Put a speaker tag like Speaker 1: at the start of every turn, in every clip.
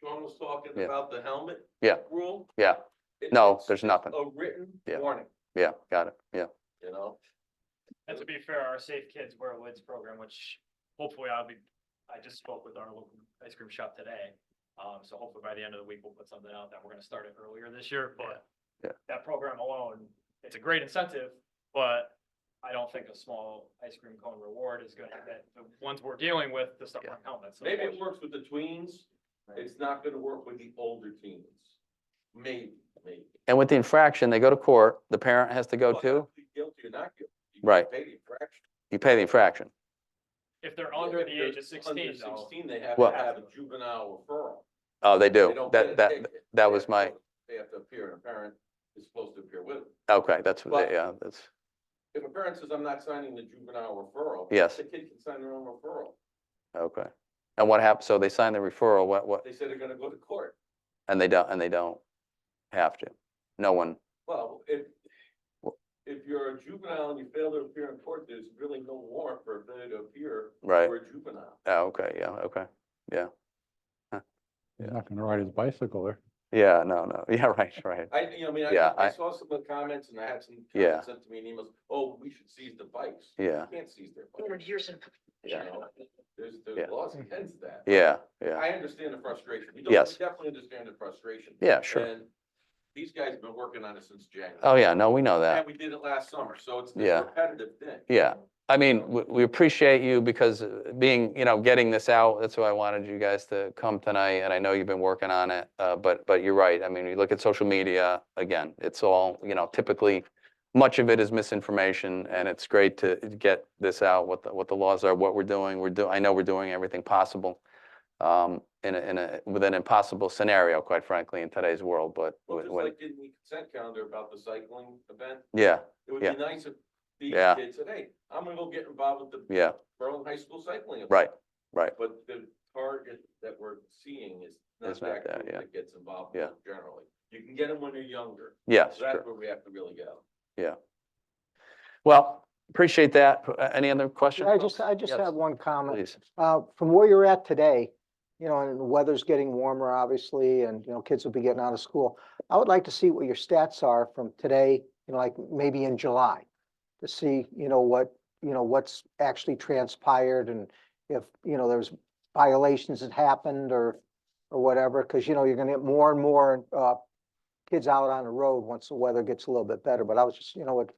Speaker 1: one was talking
Speaker 2: Yeah.
Speaker 1: about the helmet.
Speaker 2: Yeah.
Speaker 1: Rule.
Speaker 2: Yeah.
Speaker 1: It-
Speaker 2: No,
Speaker 1: it's
Speaker 2: there's nothing.
Speaker 1: A written
Speaker 2: Yeah.
Speaker 1: warning,
Speaker 2: Yeah, got it. Yeah.
Speaker 1: you know?
Speaker 3: And to be fair, our Safe Kids Wear Lids program, which hopefully I'll be, I just spoke with our local ice cream shop today. Um, so hopefully by the end of the week, we'll put something out that we're gonna start it earlier this year, but
Speaker 2: Yeah.
Speaker 3: that program alone, it's a great incentive, but I don't think a small ice cream cone reward is gonna, that, the ones we're dealing with, the stuff on helmets.
Speaker 1: Maybe it
Speaker 3: unfortunately.
Speaker 1: works with the tweens, it's not gonna work with the older teens. Maybe, maybe.
Speaker 2: And with the infraction, they go to court, the parent has to go
Speaker 1: But
Speaker 2: too.
Speaker 1: not be Guilty or not guilty. You can
Speaker 2: Oh, Right.
Speaker 1: Pay the infraction.
Speaker 2: You pay the infraction.
Speaker 3: If they're under
Speaker 1: If
Speaker 3: the
Speaker 1: they're
Speaker 3: age of
Speaker 1: under
Speaker 3: sixteen though,
Speaker 1: Sixteen, they have to
Speaker 2: Well-
Speaker 1: have a juvenile referral.
Speaker 2: Oh, they
Speaker 1: They
Speaker 2: do.
Speaker 1: don't get a
Speaker 2: That, that,
Speaker 1: ticket.
Speaker 2: that
Speaker 1: They
Speaker 2: was
Speaker 1: have to
Speaker 2: my-
Speaker 1: go- They have to appear, and a parent is supposed to appear with them.
Speaker 2: okay, that's, what
Speaker 1: But-
Speaker 2: they- yeah, that's,
Speaker 1: If a parent says, I'm not signing the juvenile referral.
Speaker 2: Yes.
Speaker 1: The kid can sign their own referral.
Speaker 2: okay. And what happened? So they sign the referral, what, what,
Speaker 1: They said they're gonna go to court.
Speaker 2: and they don't, and they don't have to. No one,
Speaker 1: Well, if,
Speaker 2: Wha-
Speaker 1: if you're a juvenile and you fail to appear in court, there's really no warrant for a failure to appear
Speaker 2: right?
Speaker 1: for a juvenile.
Speaker 2: Oh, okay, yeah, okay.
Speaker 4: He's not gonna ride his bicycle there.
Speaker 2: Yeah, no, no. Yeah, right, right.
Speaker 1: I, you know, I mean,
Speaker 2: Yeah,
Speaker 1: I, I
Speaker 2: I-
Speaker 1: saw some of the comments and I had some
Speaker 2: Yeah.
Speaker 1: comments sent to me in emails, oh, we should seize the bikes.
Speaker 2: Yeah.
Speaker 1: You can't seize their
Speaker 5: Hundred
Speaker 1: bikes.
Speaker 5: years in.
Speaker 1: you
Speaker 2: Yeah.
Speaker 1: know? There's,
Speaker 2: Yeah.
Speaker 1: there's laws against that.
Speaker 2: Yeah, yeah,
Speaker 1: I understand the frustration. We don't, we
Speaker 2: Yes.
Speaker 1: definitely understand the frustration.
Speaker 2: yeah, sure.
Speaker 1: And these guys have been working on it since January.
Speaker 2: Oh, yeah, no, we know
Speaker 1: And
Speaker 2: that.
Speaker 1: we did it last summer, so it's
Speaker 2: Yeah.
Speaker 1: a repetitive thing.
Speaker 2: Yeah. I mean, we, we appreciate you because uh, being, you know, getting this out, that's why I wanted you guys to come tonight. And I know you've been working on it, uh, but, but you're right. I mean, you look at social media, again, it's all, you know, typically much of it is misinformation and it's great to get this out, what the, what the laws are, what we're doing. We're do, I know we're doing everything possible. Um, in a, in a, with an impossible scenario, quite frankly, in today's world, but
Speaker 1: Well, just
Speaker 2: when,
Speaker 1: like in the consent calendar about the cycling event,
Speaker 2: yeah,
Speaker 1: it would
Speaker 2: Yeah.
Speaker 1: be nice if these
Speaker 2: Yeah.
Speaker 1: kids said, hey, I'm gonna go get involved with the
Speaker 2: yeah,
Speaker 1: Berlin High School cycling. event."
Speaker 2: right, right.
Speaker 1: But the target that we're seeing is not
Speaker 2: It's not
Speaker 1: that
Speaker 2: that,
Speaker 1: group
Speaker 2: yeah.
Speaker 1: that gets involved with
Speaker 2: Yeah.
Speaker 1: it generally. You can get them when they're younger.
Speaker 2: Yes,
Speaker 1: So
Speaker 2: sure.
Speaker 1: that's where we have to really go.
Speaker 2: Well, appreciate that. Uh, Any other questions?
Speaker 6: I
Speaker 2: folks?
Speaker 6: just, I just
Speaker 2: Yes,
Speaker 6: have one comment.
Speaker 2: Please.
Speaker 6: Uh, from where you're at today, you know, and the weather's getting warmer, obviously, and, you know, kids will be getting out of school. I would like to see what your stats are from today, you know, like maybe in July, to see, you know, what, you know, what's actually transpired and if, you know, there's violations that happened or, or whatever, because, you know, you're gonna get more and more, uh, kids out on the road once the weather gets a little bit better, but I was just, you know, would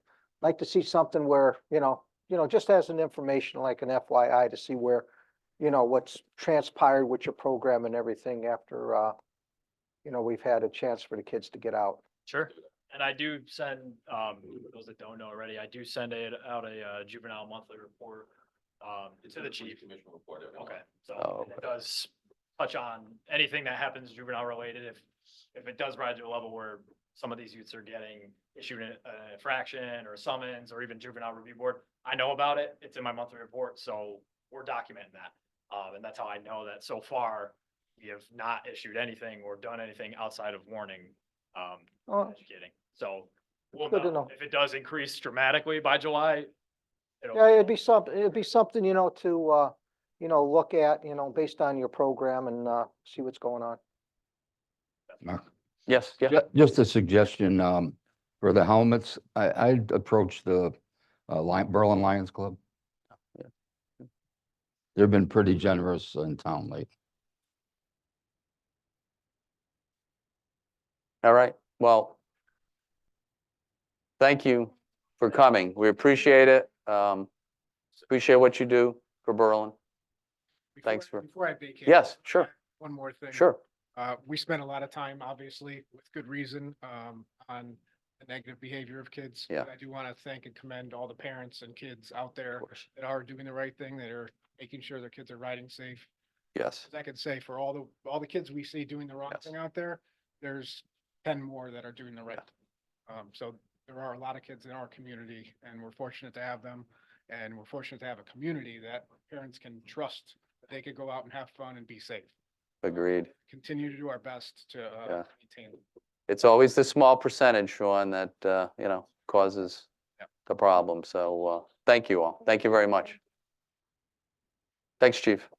Speaker 6: like to see something where, you know, you know, just as an information, like an FYI to see where, you know, what's transpired with your program and everything after, uh, you know, we've had a chance for the kids to get out.
Speaker 3: Sure. And I do send, um, those that don't know already, I do send a, out a uh, juvenile monthly report, um,
Speaker 1: It's
Speaker 3: to
Speaker 1: in
Speaker 3: the
Speaker 1: police
Speaker 3: chief.
Speaker 1: Commission report. every month.
Speaker 3: Okay,
Speaker 2: Oh,
Speaker 3: so and it does touch on anything that happens juvenile related. If, if it does rise to a level where some of these youths are getting issued an an infraction or summons or even juvenile review board, I know about it. It's in my monthly report, so we're documenting that. Um, and that's how I know that so far, we have not issued anything or done anything outside of warning, um,
Speaker 6: Oh,
Speaker 3: educating. So we'll
Speaker 6: Good to
Speaker 3: know.
Speaker 6: know.
Speaker 3: If it does increase dramatically by July, it'll.
Speaker 6: Yeah, it'd be something, it'd be something, you know, to, uh, you know, look at, you know, based on your program and, uh, see what's going on.
Speaker 2: Yes, yeah,
Speaker 4: Ju- Just a suggestion, um, for the helmets, I, I'd approach the, uh, Lion, Berlin Lions Club.
Speaker 2: Yeah.
Speaker 4: They've been pretty generous in town lately.
Speaker 2: all right, well. Thank you for coming. We appreciate it. Um, appreciate what you do for Berlin.
Speaker 7: Before-
Speaker 2: Thanks for-
Speaker 7: Before I vacate.
Speaker 2: Yes, sure,
Speaker 7: One more thing.
Speaker 2: sure.
Speaker 7: Uh, we spent a lot of time, obviously, with good reason, um, on the negative behavior of kids.
Speaker 2: Yeah.
Speaker 7: But I do want to thank and commend all the parents and kids out
Speaker 2: Of
Speaker 7: there
Speaker 2: course.
Speaker 7: that are doing the right thing, that are making sure their kids are riding safe.
Speaker 2: Yes,
Speaker 7: As I can say, for all the, all the kids we see doing the wrong
Speaker 2: Yes.
Speaker 7: thing out there, there's ten more that are doing the right. thing. Um, so there are a lot of kids in our community and we're fortunate to have them. And we're fortunate to have a community that parents can trust, that they could go out and have fun and be safe.
Speaker 2: agreed.
Speaker 7: Continue to do our best to, uh,
Speaker 2: Yeah.
Speaker 7: maintain.
Speaker 2: It's always the small percentage, Sean, that, uh, you know, causes
Speaker 7: Yep.
Speaker 2: the problem. So, uh, thank you all. Thank you very much. Thanks, chief.